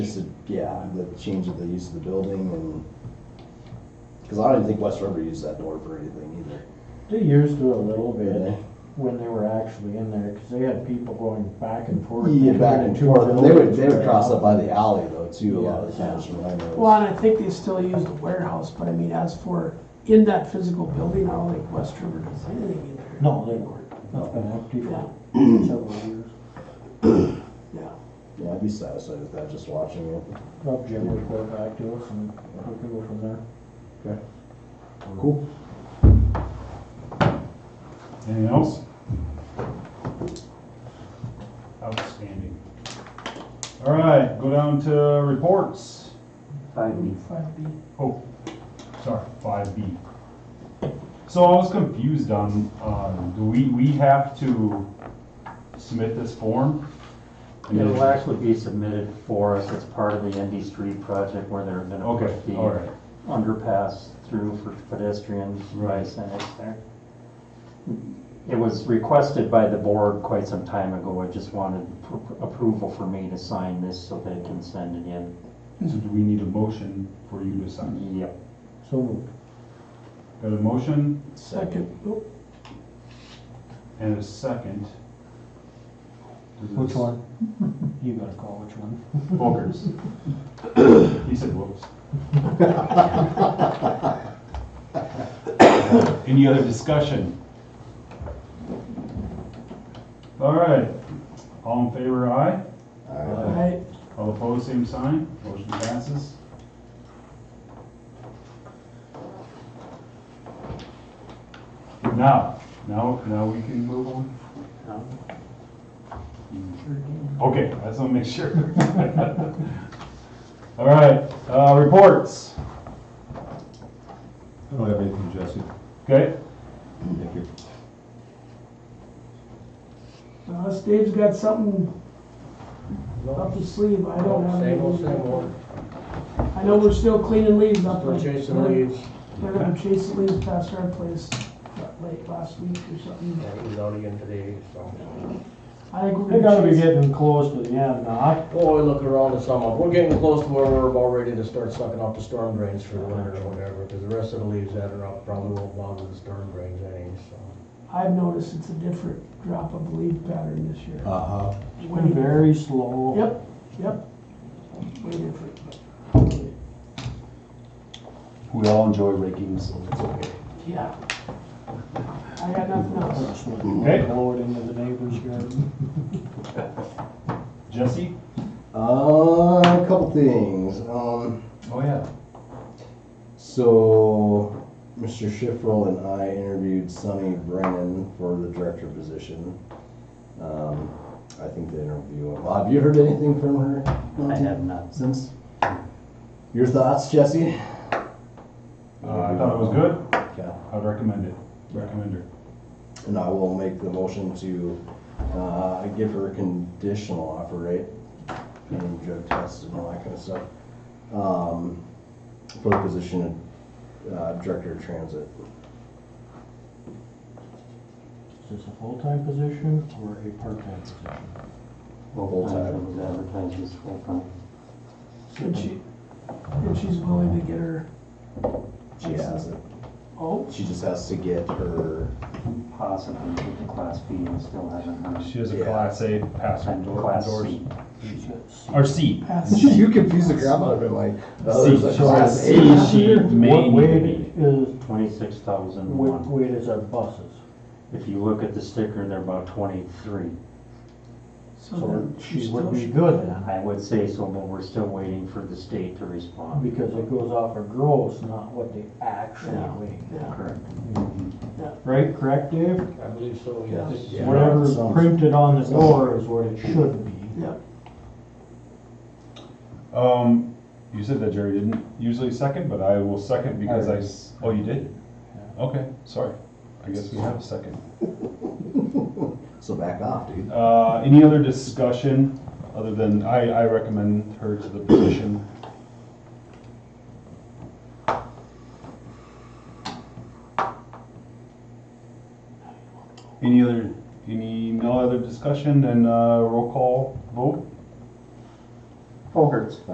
Just, a- yeah, the change of the use of the building and, because I don't even think West River used that door for anything either. They used it a little did bit they? when they were actually in there, because they had people going back and forth. Yeah, back and forth, and they would, they would cross up up. by the alley though too, a lot of the times from what I noticed. Well, and I think they still use the warehouse, but I mean, as for in that physical building, I don't think West River does anything in there. No, they weren't. That's been empty for several years. Yeah, Yeah, I'd be satisfied with that, just watching it. Rob Jim would go back to us and we could go from there. Cool. Anything else? Outstanding. All right, go down to reports. five B. Oh, sorry, five B. So I was confused on, uh, do we, we have to submit this form? And then- It'll actually be submitted for us as part of the Endy Street project where they're gonna Okay, put the all right, underpass through for pedestrians. Right. And it's there. It was requested by the board quite some time ago. I just wanted pr- approval for me to sign this so they can send it in. so do we need a motion for you to sign? Yep. So moved. Got a motion Second, oh, and a second. Does this- Which one? You gotta call which one. Volkers. He said whoops. Any other discussion? All right, all in favor, aye. Alright. I, All opposed, same sign. Motion passes. Now, now, now we can move on? Okay, I just want to make sure. All right, uh, reports, I don't have anything, Jesse. okay? Thank you. unless Dave's Uh, got something up his sleeve, I don't have. Same old, anything. same old. I know we're still cleaning leaves up there. We're chasing leaves. They're gonna chase the leaves past our place uh, late last week or something. Yeah, it was out again today, so. I think They we're gotta gonna be chase. getting close to the end now. Boy, look around the summer. We're getting close to where we're about ready to start sucking up the storm drains for the winter or whatever, because the rest of the leaves that are up probably won't bother the storm drains any, so. I've noticed it's a different drop of leaf pattern this year. Uh-huh. It's been very slow. Yep, yep. Way different. We all enjoy raking, so it's okay. Yeah. I got nothing else. That's what Okay. blow it into the neighbor's garden. Jesse? Uh, a couple things, um. Oh, yeah. So, Mr. Schiffrel and I interviewed Sonny Brennan for the director position. Um, I think the interview went well. Have you heard anything from her? I have not. Since? Your thoughts, Jesse? Uh, I thought it was good. Okay. I'd recommend it. Recommend her. And I will make the motion to, uh, give her a conditional offer, right? Pending drug tests and all that kind of stuff. Um, for the position of, uh, director of transit. Is this a full-time position or a part-time position? Full-time. It was advertised as full-time. And she, and she's willing to get her, She has it. oh, She just has to get her, Possibly with the class B and still haven't heard. She has a Yeah. class A passer And door. class doors. C. She says. Or C. pass. you confuse the crap out of it, like, oh, there's a See, class she- A. she may What need to weight be. is, Twenty-six thousand what one. weight is our buses? If you look at the sticker, they're about twenty-three. So So then she still would be should- good then, I would say so, but we're still waiting for the state to respond. because it goes off of gross, not what they actually weigh. Yeah, Correct. Mm-hmm. Right, correct, Dave? I believe so, Yeah. yes. Yeah. Whatever's Sounds- printed on the door is what it should be. yeah. Um, you said that Jerry didn't usually second, but I will second because I, s- oh, you did? Okay, sorry. I guess we have a second. So back off, dude. Uh, any other discussion other than I, I recommend her to the position? Any other, any, no other discussion and, uh, roll call vote? Folkerts?